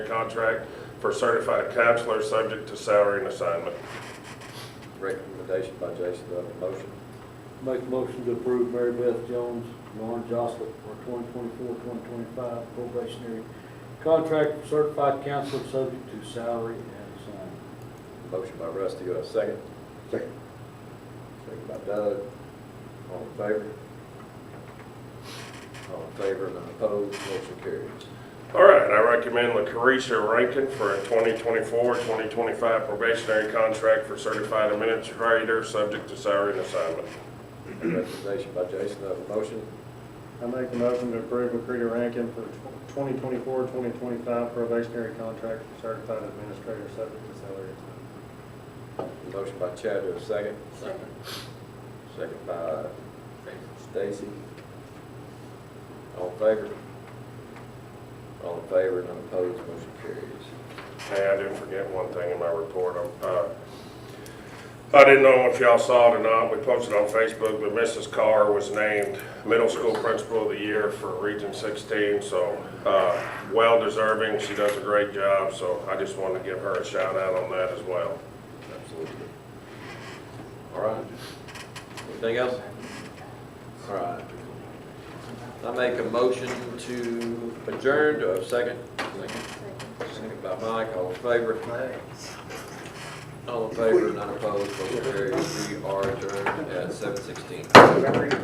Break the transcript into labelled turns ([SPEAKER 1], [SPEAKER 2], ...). [SPEAKER 1] contract for certified counselor, subject to salary and assignment.
[SPEAKER 2] Recommendation by Jason, do I have a motion?
[SPEAKER 3] Make a motion to approve Mary Beth Jones, Lauren Jostlip for 2024-2025 probationary contract for certified counselor subject to salary and assignment.
[SPEAKER 2] Motion by Rusty, do I have a second? Second. Second by Doug. All in favor? All in favor, none opposed, motion carries.
[SPEAKER 1] All right, I recommend LaCarisha Rankin for a 2024-2025 probationary contract for certified administrator, subject to salary and assignment.
[SPEAKER 2] Recommendation by Jason, do I have a motion?
[SPEAKER 4] I make a motion to approve McCready Rankin for 2024-2025 probationary contract for certified administrator subject to salary.
[SPEAKER 2] Motion by Chad, do I have a second?
[SPEAKER 5] Second.
[SPEAKER 2] Second by Stacy. All in favor? All in favor, none opposed, motion carries.
[SPEAKER 1] Hey, I didn't forget one thing in my report. Um, uh, I didn't know if y'all saw it or not, we posted on Facebook, but Mrs. Carr was named Middle School Principal of the Year for Region 16, so uh, well deserving, she does a great job, so I just wanted to give her a shout out on that as well.
[SPEAKER 2] Absolutely. All right. Anything else? All right. I make a motion to adjourn, do I have a second? Second by Mike, all in favor? All in favor, none opposed, motion carries. We are adjourned at seven sixteen.